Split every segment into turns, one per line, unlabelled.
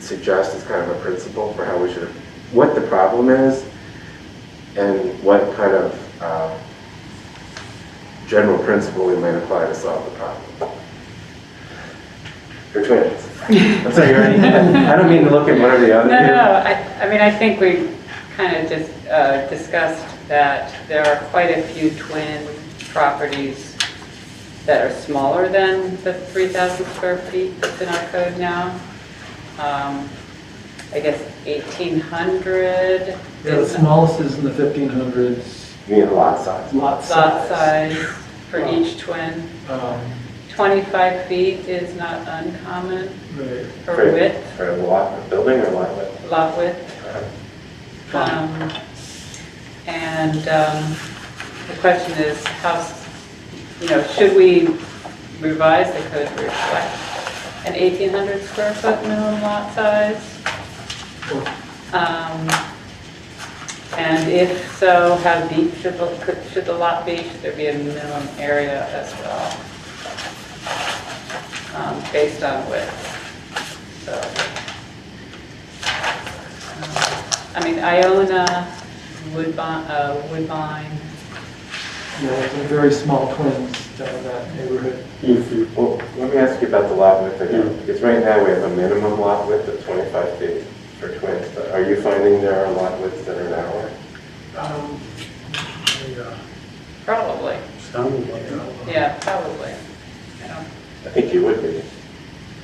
suggest as kind of a principle for how we should, what the problem is and what kind of um, general principle we might apply to solve the problem. They're twins. I'm sorry, you're already- I don't mean to look at one or the
No,
other.
no, I, I mean, I think we kind of just uh, discussed that there are quite a few twin properties that are smaller than the 3,000 square feet that's in our code now. Um, I guess 1,800
Yeah, the
is
smallest is in the fifteen hundreds,
You mean lot size.
lot size.
lot size for each twin.
Um,
25 feet is not uncommon
right,
for width,
For a lot, a building or lot width?
lot width. Um, And um, the question is, how, s- you know, should we revise the code to reflect an 1,800 square foot minimum lot size?
Or-
Um, And if so, how deep should the, could- should the lot be? Should there be a minimum area as well? Um, Based on width, so. um, I mean, Iona, Woodbine, uh, Woodbine,
Yeah, they're very small twins down in that neighborhood.
Well, let me ask you about the lot width again, because right now we have a minimum lot width of 25 feet for twins, but are you finding there are lot widths that are narrower?
Um,
probably,
Sounded like
yeah, probably. I don't-
I think you would be.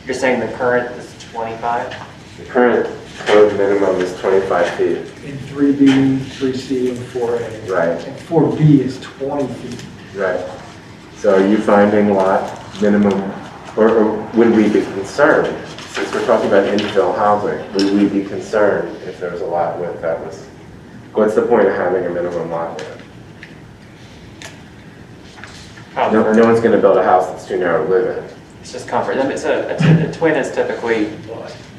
You're saying the current is 25?
The current code minimum is 25 feet.
In three B, three C, and four A.
Right.
And four B is twenty feet.
Right. So are you finding lot minimum, or- or would we be concerned, since we're talking about infill housing, would we be concerned if there was a lot width that was, what's the point of having a minimum lot width? No,
Comfort.
no one's gonna build a house that's too narrow to live in.
Oh, It's just comfort. Then It's a, it's a- a twin is typically,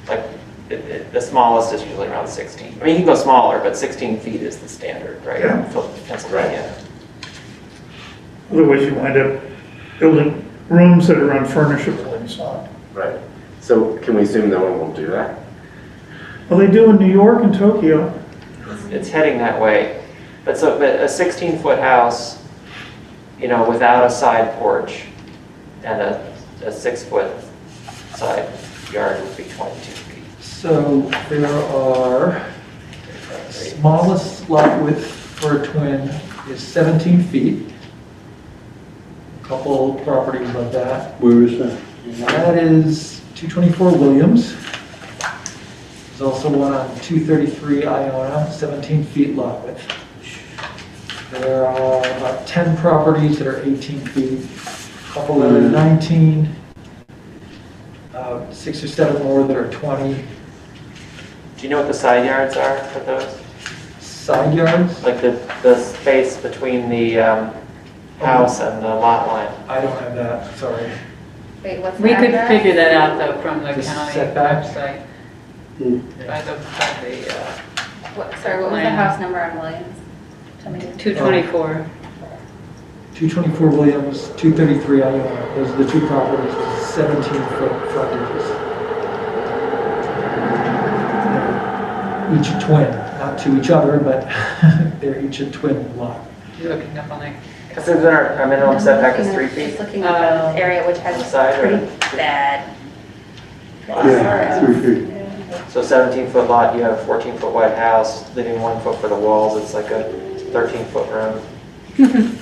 like, it- it- the smallest is usually around 16. I mean, you can go smaller, but 16 feet is the standard, right?
Yeah.
Phil- Pennsylvania.
Otherwise, you wind up building rooms that are unfurnishable inside.
Right. So can we assume no one will do that?
Well, they do in New York and Tokyo.
It's- It's heading that way. But so, but a 16-foot house, you know, without a side porch and a, a six-foot side yard would be 22 feet.
So there are, smallest lot width for a twin is seventeen feet. A Couple properties like that.
Where is that?
That is 224 Williams. There's also one on 233 Iona, 17 feet lot width. There are about 10 properties that are 18 feet, a couple that are
Hmm.
19, uh, six or seven more that are 20
Do you know what the side yards are for those?
side yards.
Like the, the space between the um, house and the lot line?
I don't have that, sorry.
Wait, what's
We could
that?
figure that out though from the
The
county
setbacks?
website, by the, by the, uh,
What, sorry, what was the
Land.
house number on Williams? Tell me.
224.
224 Williams, 233 Iona, those are the two properties with 17 foot frontages. Each a twin, not to each other, but they're each a twin lot.
You're looking up on it.
Because then our, our minimum setback is three
Just
feet.
looking at
Oh.
this area, which
The
has
side or-
pretty bad.
Yeah, three feet.
So 17 foot lot, you have a 14 foot wide house, leaving one foot for the walls, it's like a 13 foot room.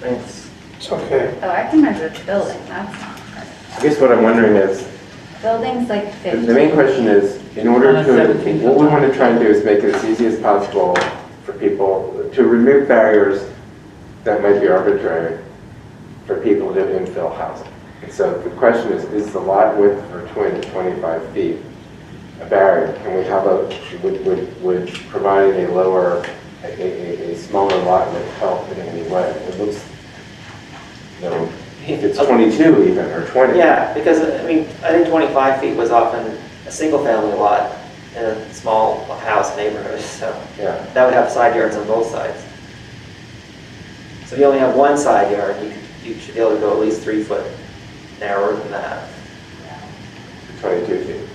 Thanks.
It's okay.
Oh, I can measure the building, that's not,
I guess what I'm wondering is,
building's like
the
fifty.
the main question is, in order
Uh,
to,
seventeen.
what we wanna try and do is make it as easy as possible for people, to remove barriers that might be arbitrary for people to infill housing. And so the question is, is the lot width for twin to 25 feet a barrier? Can we have a, would, would, would providing a lower, a, a, a- a smaller lot width help in any way? It looks, you know, if it's 22 even, or 20.
Yeah, because, I mean, I think 25 feet was often a single family lot in a small house neighborhood, so
Yeah.
that would have side yards on both sides. So if you only have one side yard, you, you should be able to go at least three foot narrower than that.
22 feet.